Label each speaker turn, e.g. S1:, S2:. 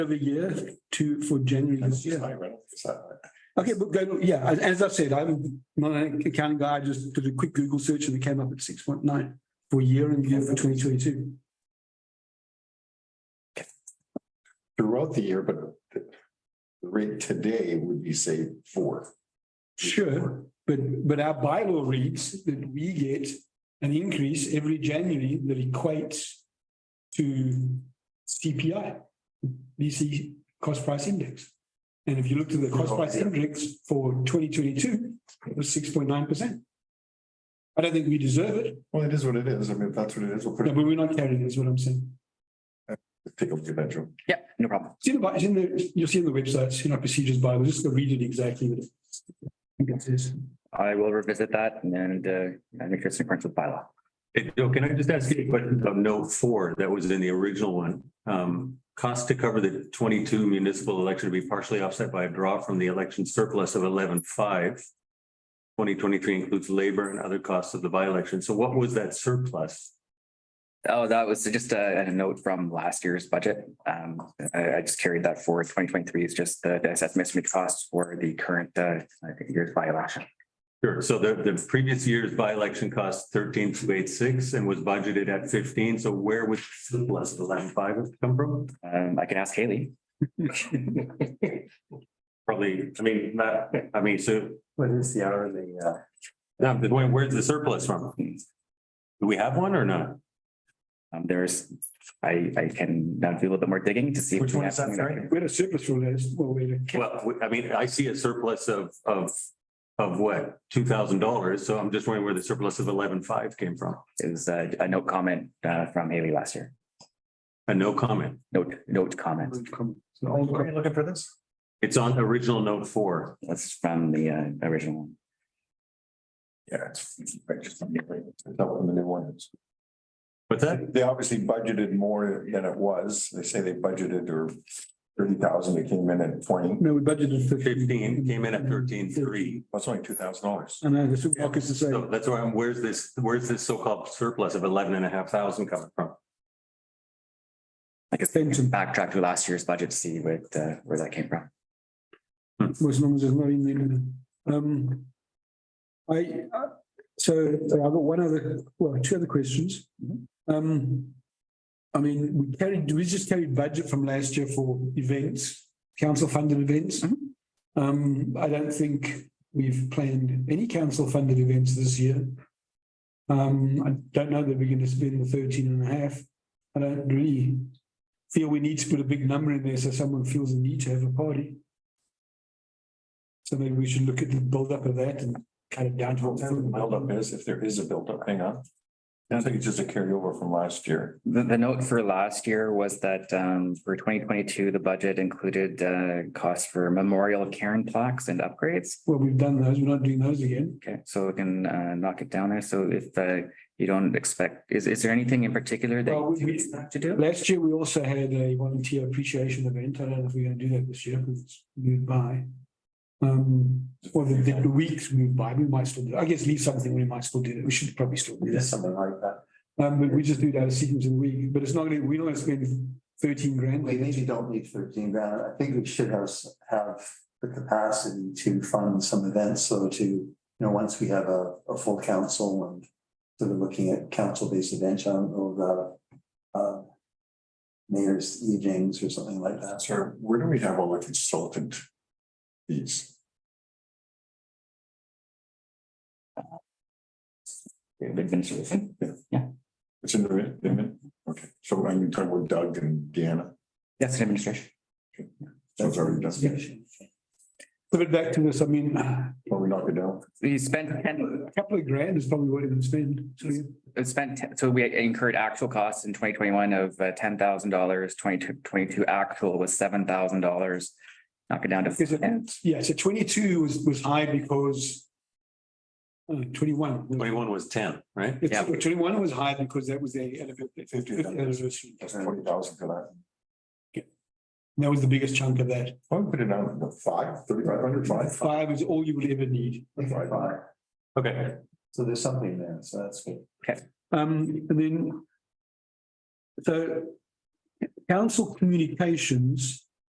S1: every year to, for January this year. Okay, but go, yeah, as- as I've said, I'm not an accounting guy, I just did a quick Google search and it came up at six point nine for year and year for twenty twenty-two.
S2: Throughout the year, but the the rate today would be say four.
S1: Sure, but, but our bylaw reads that we get an increase every January that equates to CPI, BC cost price index. And if you look to the cost price index for twenty twenty-two, it was six point nine percent. I don't think we deserve it,
S2: Well, it is what it is. I mean, if that's what it is, we'll put
S1: but
S2: it,
S1: we're not carrying it, is what I'm saying.
S2: take up the bedroom.
S3: Yeah, no problem.
S1: It's in the, it's in the, you'll see in the website, it's in our procedures Bible, just go read it exactly. what it- I think it says.
S3: I will revisit that and uh, I think it's in accordance with bylaw.
S4: Hey, Joe, can I just ask you a question about note four that was in the original one? Um, cost to cover the twenty-two municipal election to be partially offset by a draw from the election surplus of eleven-five. Twenty twenty-three includes labor and other costs of the by-election. So what was that surplus?
S3: Oh, that was just a, a note from last year's budget. Um, I, I just carried that forward. Twenty twenty-three is just the, the assessment estimate costs for the current, uh, I think year's by-election.
S4: Sure, so the, the previous year's by-election cost thirteen two eight six and was budgeted at fifteen. So where would the surplus of eleven-five have come from?
S3: Um, I can ask Haley.
S4: Probably, I mean, not, I mean, so
S3: What is the hourly, uh?
S4: No, but where- where's the surplus from? Do we have one or not?
S3: Um, there's, I, I can now do a little bit more digging to see. if
S4: Which
S3: we
S4: one
S3: have
S4: is that,
S3: something that
S4: sorry?
S3: can-
S1: We had a surplus from that, well, we had a-
S4: Well, we- I mean, I see a surplus of, of, of what, two thousand dollars, so I'm just wondering where the surplus of eleven-five came from.
S3: It was a, a note comment, uh, from Haley last year.
S4: A no comment.
S3: Note, note comment.
S1: it's an old copy.
S2: looking for this?
S4: It's on original note four.
S3: That's from the, uh, original one.
S2: Yeah. it's- it's just- it's not what the new one is.
S4: What's that?
S2: They obviously budgeted more than it was. They say they budgeted or thirty thousand, they came in at twenty.
S1: No, we budgeted fifteen.
S4: Fifteen, came in at thirteen-three.
S2: That's only two thousand dollars.
S1: I know, that's what Marcus is
S4: So
S1: saying.
S4: that's why I'm, where's this, where's this so-called surplus of eleven and a half thousand coming from?
S3: I guess they can
S1: Fenton
S3: backtrack to last year's budget, to see what, uh, where that came from.
S1: was as long as it's not in there. Um, I, uh, so I've got one other, well, two other questions. Um, I mean, we carried, we just carried budget from last year for events, council funded events.
S3: Mhm.
S1: Um, I don't think we've planned any council funded events this year. Um, I don't know that we're going to spend the 13 and a half. I don't really feel we need to put a big number in there so someone feels the need to have a party. So maybe we should look at the buildup of that and cut it down to. what
S2: Whatever the buildup is, if there is a buildup, hang on. I think it's just a carryover from last year.
S3: The, the note for last year was that, um, for twenty twenty-two, the budget included, uh, costs for memorial Karen plaques and upgrades.
S1: Well, we've done those, we're not doing those again.
S3: Okay, so we can, uh, knock it down there. So if, uh, you don't expect, is, is there anything in particular that?
S1: Well, we-
S3: you
S1: we-
S3: expect To do?
S1: Last year, we also had a volunteer appreciation event. I don't know if we're gonna do that this year because it's moved by. Um, or the, the weeks moved by, we might still do, I guess leave something, we might still do that. We should probably still do that.
S2: something like that.
S1: Um, but we just do that as sequence in the week, but it's not gonna, we're not gonna spend thirteen grand.
S5: We maybe don't need thirteen grand. I think we should have, s- have the capacity to fund some events, so to, you know, once we have a, a full council and sort of looking at council-based events, I don't know about uh, mayor's evenings or something like that.
S2: Sir, where do we have all the consultant fees?
S3: Administration?
S2: It's in the, min- the, min- okay, so I'm talking with Doug and Deanna.
S3: That's an administration.
S2: So it's already done.
S1: But back to this, I mean,
S2: Well, we knock it down.
S3: We spent ten,
S1: a couple of grand is probably what we would spend. So we-
S3: it spent, 10 so we incurred actual costs in twenty twenty-one of uh, ten thousand dollars, 22 22 actual was seven thousand dollars. Knock it down to.
S1: Is it-
S3: 10.
S1: Yeah, so twenty-two was, was high because uh, twenty-one. was-
S4: Twenty-one was ten, right?
S1: It's-
S3: Yeah.
S1: Twenty-one was high because that was the fiftieth anniversary.
S2: That's twenty thousand for that.
S1: That was the biggest chunk of that.
S2: Why don't we put it down to five, thirty-five hundred, five, five,
S1: Five is all you would ever need.
S2: five.
S4: Okay,
S5: So there's something there, so that's good.
S1: Um, and then. So. Council communications